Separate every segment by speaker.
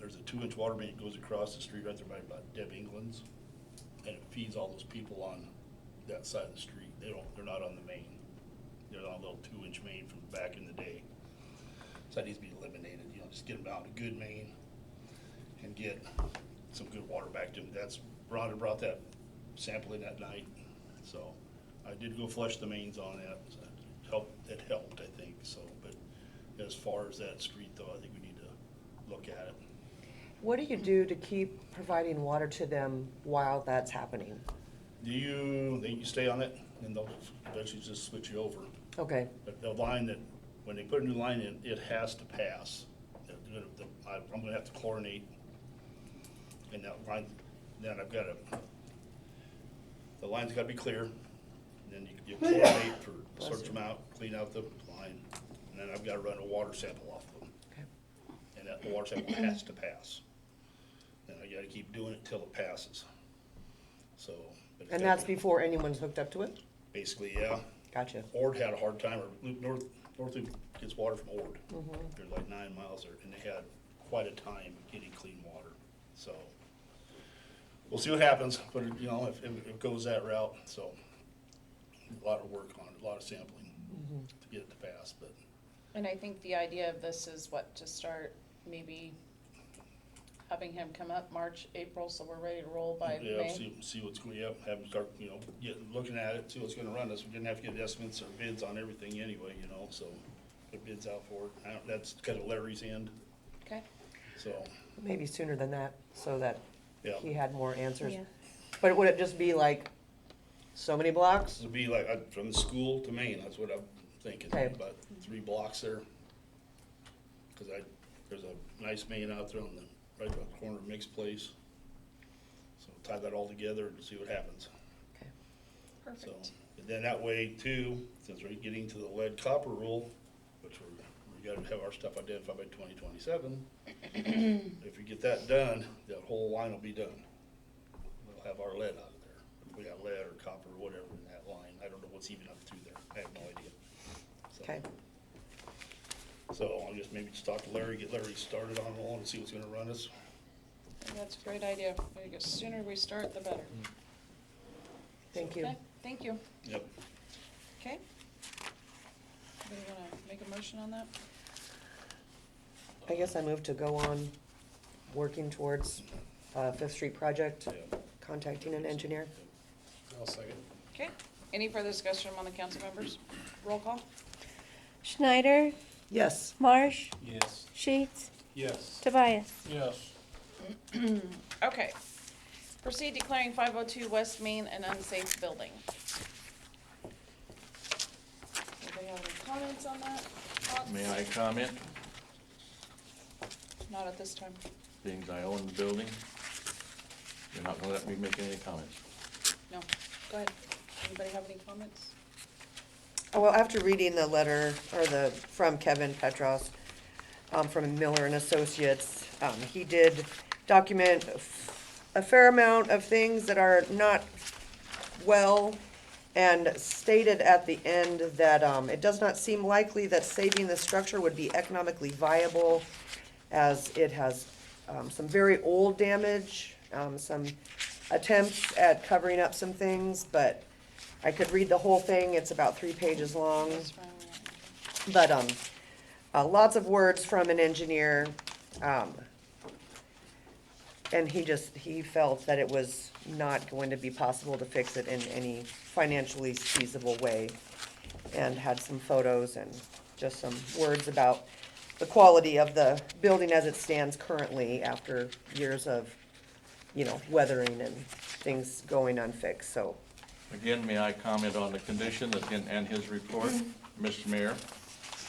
Speaker 1: there's a two-inch water main that goes across the street right there by about Deb England's, and it feeds all those people on that side of the street. They don't, they're not on the main. They're on a little two-inch main from back in the day. So that needs to be eliminated, you know, just get them out a good main and get some good water back to them. That's, Rhonda brought that sample in that night, so I did go flush the mains on that. so it Helped, it helped, I think, so, but as far as that street though, I think we need to look at it.
Speaker 2: What do you do to keep providing water to them while that's happening?
Speaker 1: Do you, think you stay on it and they'll eventually just switch you over?
Speaker 2: Okay,
Speaker 1: But the line that, when they put a new line in, it has to pass. They're gonna- the- I- I'm gonna have to chlorinate. And that line, then I've gotta, the line's gotta be clear. Then you- you chlorinate for, search them out, clean out the line. And then I've gotta run a water sample off of them.
Speaker 2: okay,
Speaker 1: And that water sample has to pass. And I gotta keep doing it till it passes. So. but it's
Speaker 2: and that's
Speaker 1: gotta be-
Speaker 2: before anyone's hooked up to it?
Speaker 1: Basically, yeah.
Speaker 2: Gotcha,
Speaker 1: Ord had a hard time, or Lu- North, North Loop gets water from Ord.
Speaker 3: Mm-hmm.
Speaker 1: They're like nine miles there, and they had quite a time getting clean water, so. We'll see what happens, but, you know, if, if it goes that route, so. A lot of work on it, a lot of sampling
Speaker 3: Mm-hmm.
Speaker 1: to get it to pass, but
Speaker 3: And I think the idea of this is what, to start maybe having him come up March, April, so we're ready to roll by
Speaker 1: Yeah,
Speaker 3: May?
Speaker 1: see, see what's going, yeah, have them start, you know, get, looking at it, see what's gonna run us, we're gonna have to get estimates or bids on everything anyway, you know, so. Put bids out for it, I don't- that's kind of Larry's end,
Speaker 3: Okay,
Speaker 1: so,
Speaker 2: maybe sooner than that, so that
Speaker 1: yeah.
Speaker 2: he had more answers.
Speaker 4: Yeah.
Speaker 2: But would it just be like, so many blocks?
Speaker 1: This would be like, uh, from the school to Maine, that's what I'm thinking,
Speaker 2: Okay.
Speaker 1: about three blocks there. Cause I, there's a nice main out there on the, right on the corner of Mix Place. So tie that all together and see what happens,
Speaker 2: Okay.
Speaker 1: so.
Speaker 3: perfect.
Speaker 1: And then that way too, since we're getting to the lead copper rule, which we're, we gotta have our stuff identified by twenty twenty-seven. If we get that done, that whole line will be done. We'll have our lead out of there. If we got lead or copper or whatever in that line, I don't know what's even up through there. I have no idea. So-
Speaker 2: Okay,
Speaker 1: So I'll just maybe just talk to Larry, get Larry started on all and see what's gonna run us.
Speaker 3: I think That's a great idea. I think The sooner we start, the better.
Speaker 2: thank you.
Speaker 3: Okay, thank you.
Speaker 1: Yep.
Speaker 3: Okay. Anybody wanna make a motion on that?
Speaker 2: I guess I move to go on working towards uh, Fifth Street project,
Speaker 1: yeah.
Speaker 2: contacting an engineer.
Speaker 5: I'll second.
Speaker 3: Okay, any further discussion among the council members? Roll call?
Speaker 4: Schneider,
Speaker 2: Yes,
Speaker 4: Marsh,
Speaker 5: Yes.
Speaker 4: Sheets,
Speaker 5: Yes.
Speaker 4: Tobias.
Speaker 5: Yes.
Speaker 3: Okay. Proceed declaring five oh two West Main an unsafe building. Anybody have any comments on that? Thoughts?
Speaker 6: May I comment,
Speaker 3: Not at this time.
Speaker 6: being I own the building? You're not gonna let me make any comments.
Speaker 3: No. Go ahead. Anybody have any comments?
Speaker 2: Oh, well, after reading the letter, or the, from Kevin Petros, um, from Miller and Associates, um, he did document a f- a fair amount of things that are not well, and stated at the end that, um, it does not seem likely that saving the structure would be economically viable, as it has, um, some very old damage, um, some attempts at covering up some things, but I could read the whole thing, it's about three pages
Speaker 6: Um.
Speaker 2: long.
Speaker 3: That's fine, we're not-
Speaker 2: But, um, uh, lots of words from an engineer, um, and he just, he felt that it was not going to be possible to fix it in any financially feasible way. And had some photos and just some words about the quality of the building as it stands currently after years of, you know, weathering and things going unfixed, so.
Speaker 6: Again, may I comment on the condition that, and- and his report, Mr. Mayor?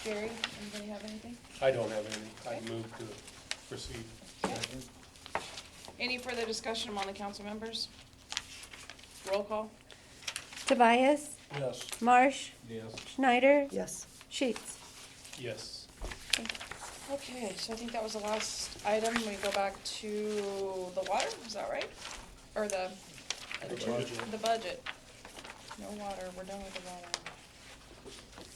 Speaker 3: Jerry, anybody have anything?
Speaker 5: I don't have any. I move to proceed.
Speaker 3: Second. Any further discussion among the council members? Roll call?
Speaker 4: Tobias,
Speaker 5: Yes.
Speaker 4: Marsh,
Speaker 5: Yes.
Speaker 4: Schneider,
Speaker 2: Yes.
Speaker 4: Sheets.
Speaker 5: Yes.
Speaker 3: Okay, so I think that was the last item. We go back to the water, is that right? Or the,
Speaker 5: The budget.
Speaker 3: the budget. No water, we're done with the water.